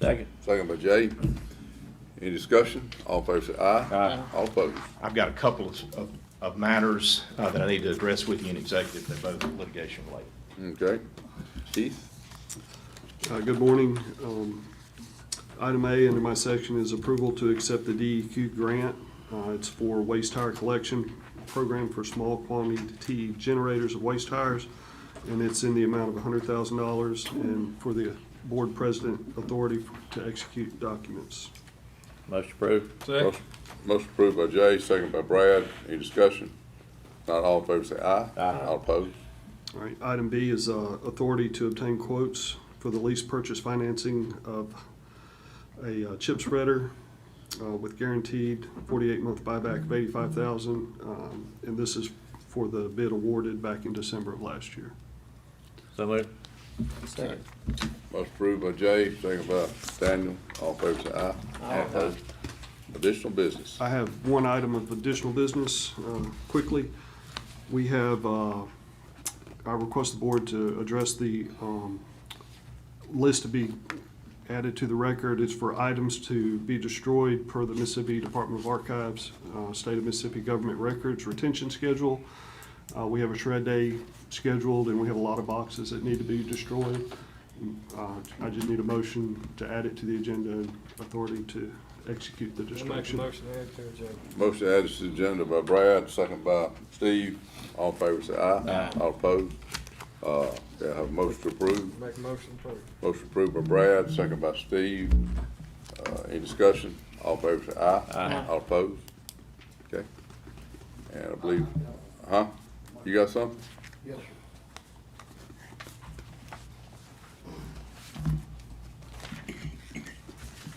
Second. Second by Jay. Any discussion? All in favor say aye. All opposed. I've got a couple of- of, of matters uh, that I need to address with you in executive, they're both litigation related. Okay. Keith? Uh, Good morning. Um, Item A under my section is approval to accept the DEQ grant. Uh, It's for waste tire collection program for small quantity generators of waste tires, and it's in the amount of $100,000 and for the board president authority to execute documents. Motion approved. Motion- Motion approved by Jay, second by Brad. Any discussion? Not all in favor say aye. All opposed. All right, item B is uh, authority to obtain quotes for the lease purchase financing of a uh, chip spreader uh, with guaranteed forty-eight month buyback of eighty-five thousand. um, And this is for the bid awarded back in December of last year. So moved. Motion approved by Jay, second by Daniel. All in favor say aye. All opposed. Additional business. I have one item of additional business, um, quickly. We have, uh, I request the board to address the um, list to be added to the record. It's for items to be destroyed per the Mississippi Department of Archives, uh, State of Mississippi Government Records Retention Schedule. Uh, We have a shred day scheduled, and we have a lot of boxes that need to be destroyed. Uh, I just need a motion to add it to the agenda and authority to execute the I'll make a destruction. motion to add to it, Jay. Motion added to the agenda by Brad, second by Steve. All in favor say aye. All opposed. Uh, yeah, have a motion to approve. Make a motion to approve. Motion approved by Brad, second by Steve. Uh, any discussion? All in favor say aye. Aye. All opposed? Okay. And I believe, huh? You got something? Yes, sir.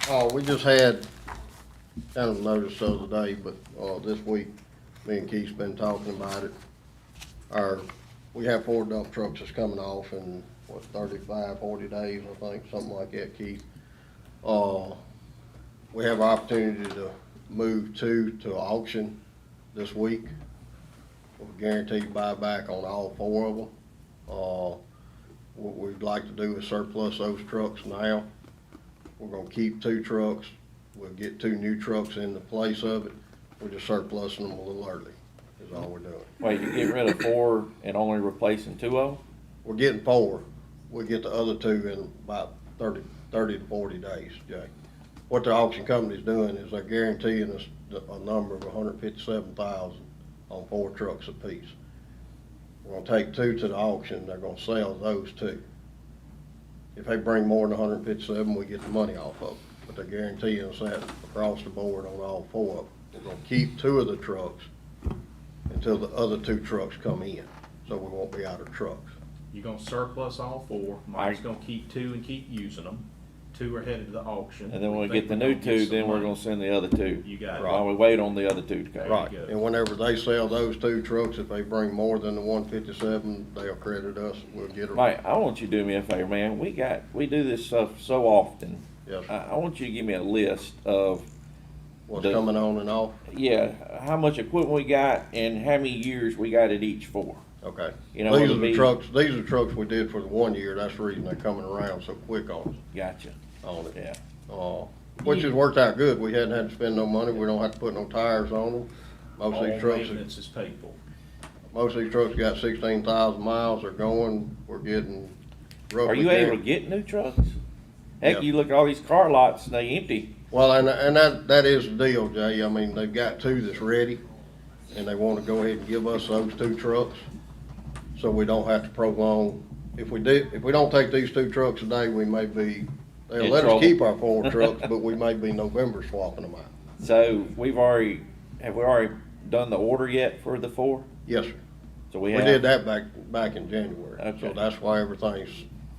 Oh, we just had, kind of noticed the other day, but, uh, this week, me and Keith's been talking about it. Our, we have four dump trucks that's coming off in, what, 35, 40 days, I think, something like that, Keith. Uh, we have opportunity to move two to auction this week. With Guaranteed buyback on all four of them. Uh, what we'd like to do is surplus those trucks now. We're gonna keep two trucks, we'll get two new trucks in the place of it, we're just surplusing them a little early, is all we're doing. Wait, you get rid of four and only replacing two of them? We're getting four, we'll get the other two in about thirty, thirty to forty days, Jay. What the auction company's doing is they're guaranteeing us the- a number of hundred fifty-seven thousand on four trucks apiece. We're gonna take two to the auction, they're gonna sell those two. If they bring more than hundred fifty-seven, we get the money off of them, but they're guaranteeing us that across the board on all four of them. We're gonna keep two of the trucks until the other two trucks come in, so we won't be out of trucks. You're gonna surplus all four, Mike's gonna keep two and keep using them, two are headed to the auction. And then when we think get the we're new gonna two, some then we're money. gonna send the other two. You got it. While we wait on the other two to come. Right, There you go. and whenever they sell those two trucks, if they bring more than the one fifty-seven, they'll credit us, we'll get them. Mike, I want you to do me a favor, man. We got, we do this stuff so often. Yes, I, sir. I want you to give me a list of, what's Uh, the- coming on and off, yeah, how much equipment we got and how many years we got it each for. okay. You These know, are it'll be- the trucks, these are the trucks we did for the one year, that's the reason they're coming around so quick on, Gotcha, us- on it. yeah. Uh, which has worked out good, we hadn't had to spend no money, we don't have to put no tires on them. All Most of Oh, these trucks, maintenance is paid for. most of these trucks got sixteen thousand miles, they're going, we're getting Are roughly. you able to guaranteed- get new trucks? Heck, Yeah. you look at all these car lots and they empty. Well, and, and that, that is the deal, Jay. I mean, they've got two that's ready, and they wanna go ahead and give us those two trucks, so we don't have to prolong. If we did, if we don't take these two trucks today, we may be, they'll In let trouble. us keep our four trucks, but we may be November swapping them out. So we've already, have we already done the order yet for the four? Yes, sir. So we We have. did that back, back in January, Okay. so that's why everything's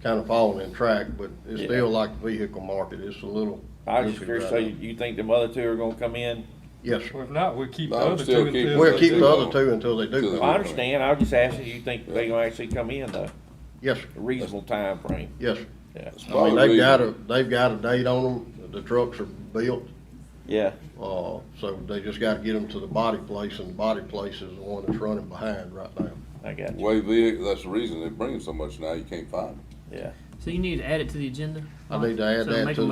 kinda falling in track, but it's Yeah. still like the vehicle market, it's a little. I was just goofy curious, right so now. you you think the mother two are gonna come in? Yes, sir. Well, if not, we'll keep the No, other still two keep- until. We'll they keep do the other go- two until they do. Till they go. I understand, I was just asking, you think they gonna actually come in though, Yes, sir. a reasonable timeframe? yes, sir. Yeah, I mean, they've got a, they've got a date on them, the trucks are built, yeah, uh, so they just gotta get them to the body place, and the body place is the one that's running behind right now. I got you, Way vehicle, that's the reason they're bringing so much now, you can't find them. yeah. So you need to add it to the agenda? I need to add So that make to a